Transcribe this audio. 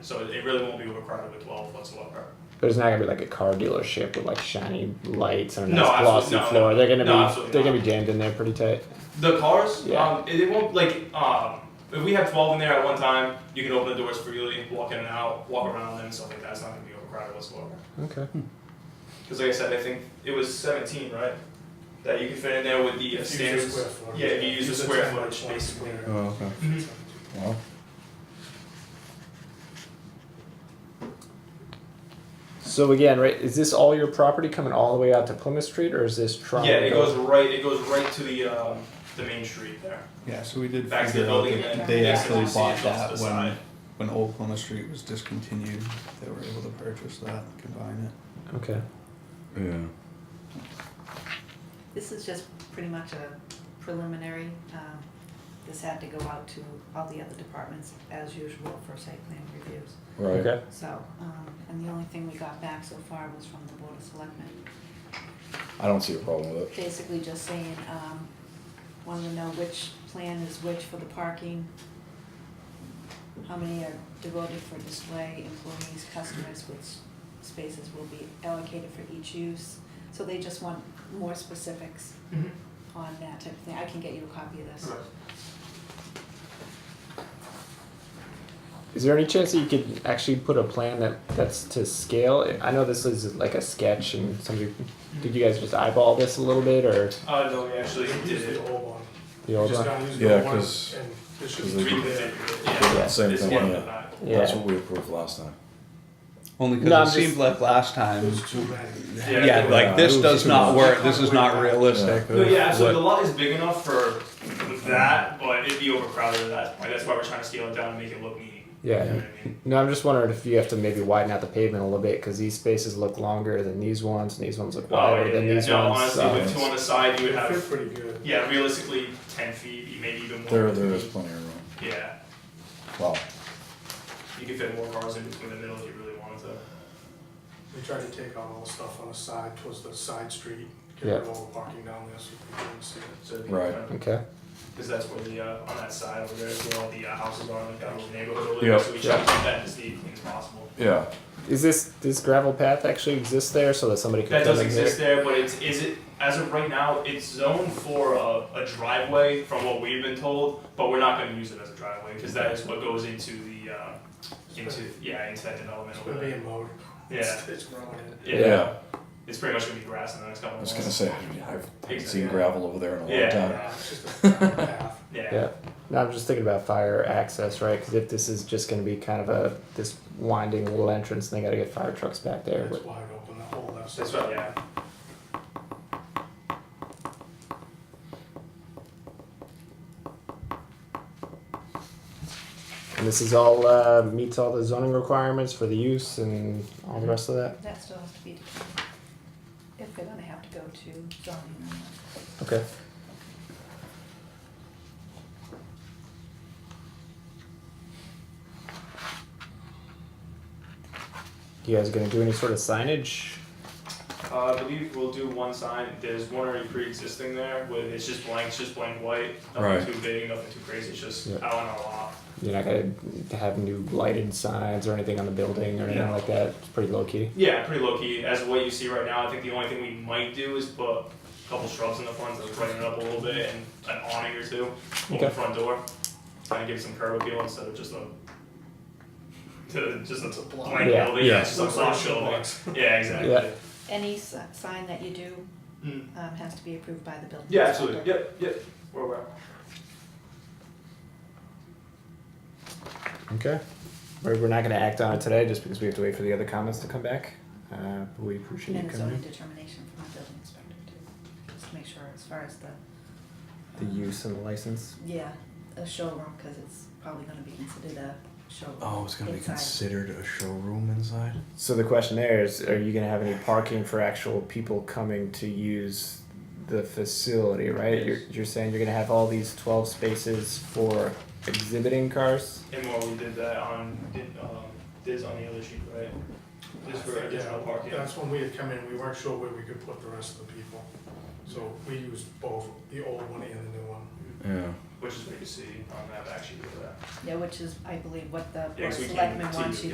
so it really won't be overcrowded with twelve whatsoever. But it's not gonna be like a car dealership with like shiny lights and a No, nice glossy absolutely not. floor. They're gonna No, be absolutely they're not. gonna be jammed in there pretty tight. The cars, Yeah. um, it, it won't like um, if we have twelve in there at one time, you can open the doors freely, walk in and out, walk around them and stuff like that. It's not gonna be overcrowded whatsoever. Okay. Because like I said, I think it was seventeen, right? That you can fit in there with the uh, If you use a standards. square footage. Yeah, if you use the square 10 by footage, 20 basically. square. Oh, okay. Mhm. Mm-hmm. Wow. So again, right, is this all your property coming all the way out to Plymouth Street or is this Toronto? Yeah, it goes right. It goes right to the um, the main street there. Yeah, so we did Back to the figure out building that and then they back actually to the bought city that office when, side. when Old Plymouth Street was discontinued, they were able to purchase that and combine it. Okay. Yeah. This is just pretty much a preliminary, um, this had to go out to all the other departments as usual for site plan reviews. Right. Okay. So, um, and the only thing we got back so far was from the Board of Selectmen, I don't see a problem with it. basically just saying, um, wanted to know which plan is which for the parking, how many are devoted for display, employees, customers, which spaces will be allocated for each use. So they just want more specifics on that type of thing. I can get you a copy of this. Mm-hmm. Right. Is there any chance that you could actually put a plan that that's to scale? I know this is like a sketch and somebody did you guys just eyeball this a little bit or Uh, no, we actually You did Use the it. old one. the old Just one? don't use Yeah, the one, 'cause- and it should because be they- there. Reconfigured, Yeah, Yeah. same This thing, one, yeah. not- That's Yeah. what we approved last time. Only No, I'm because just- it seemed like last It time, was too many. Yeah, yeah, it was- like this it does was- not work, this is not realistic. No, yeah, absolutely. The lot is big enough for that, but it'd be overcrowded at that point. That's why we're trying to scale it down and make it look neat. You know Yeah. what I mean? No, I'm just wondering if you have to maybe widen out the pavement a little bit because these spaces look longer than these ones, and these ones look Oh, wider yeah, than yeah. these No, ones. honestly, so- with two on the side, you would It fit have, pretty good. yeah, realistically, ten feet, maybe even more. There, there is plenty of room. Yeah, Wow. you could fit more cars in between the middle if you really wanted to. We tried to take out all the stuff on the side, towards the side street, get Yeah. rid of all the parking down there so people couldn't see it. So it'd be Right. kind of- Okay. Cause that's where the, uh, on that side over there is where all the uh, houses are, like that little neighborhood over Yeah. there, so we try to keep that as deep as possible. Yeah. Is this this gravel path actually exist there so that somebody could That come does in here? exist there, but it's, is it, as of right now, it's zoned for a, a driveway from what we've been told, but we're not gonna use it as a driveway, cause that is what goes into the, uh, into, yeah, into that development It's over gonna be there. a mode. Yeah, It's- It's growing in. yeah, it's pretty much gonna be grass in the next couple of I was months. gonna say, I- I've haven't seen Yeah. gravel over there in a long Yeah. time. Yeah, it's just a path. Yeah, Yeah. No, I'm just thinking about fire access, right? Because if this is just going to be kind of a this winding little entrance, and they got to get fire trucks back there. It's But, wide open, the whole left side. that's right, yeah, and this is all uh, meets all the zoning requirements for the use and all the rest of that. That still has to be determined. If they're gonna have to go to zoning or not. Okay. You guys gonna do any sort of signage? uh, I believe we'll do one sign, there's one already pre-existing there, with, it's just blank, it's just blank white, Right. nothing too big, nothing too crazy, it's just Yeah. out on our lot. You're not gonna have new lighted signs or anything on the building or anything No. like that. It's pretty low key. Yeah, pretty low key. As what you see right now, I think the only thing we might do is put a couple shrubs in the front to brighten it up a little bit and an awning or two over Okay. the front door. Kind of give it some curb appeal instead of just a to just It's a a block. blank Yeah. building. Yeah. it's just a Looks like block building. shoebox. Yeah, exactly. Yeah. Any s- sign that you do, Mm. um, has to be approved by the building. Yeah, absolutely. inspector. Yep, yep. We're aware. Okay. We're, we're not gonna act on it today just because we have to wait for the other comments to come back. Uh, but we And appreciate then you a zoning coming. determination from the building inspector too, just to make sure as far as the. um, The use and the license. Yeah, a showroom, cause it's probably gonna be considered a showroom. Oh, it's gonna be Inside. considered a showroom inside? So the question there is, are you gonna have any parking for actual people coming to use the facility, right? Yes. You're, you're saying you're gonna have all these twelve spaces for exhibiting cars? And more, we did that on did um this on the other sheet, right? Just for Yeah, additional parking. That's when we had come in, we weren't sure where we could put the rest of the people. So we used both, the old one and the new one. Mm-hmm. Yeah. Which is what you see on that back sheet over there. Yeah, which is, I believe, what the Yeah, board 'cause of we can't selectmen continue. wants you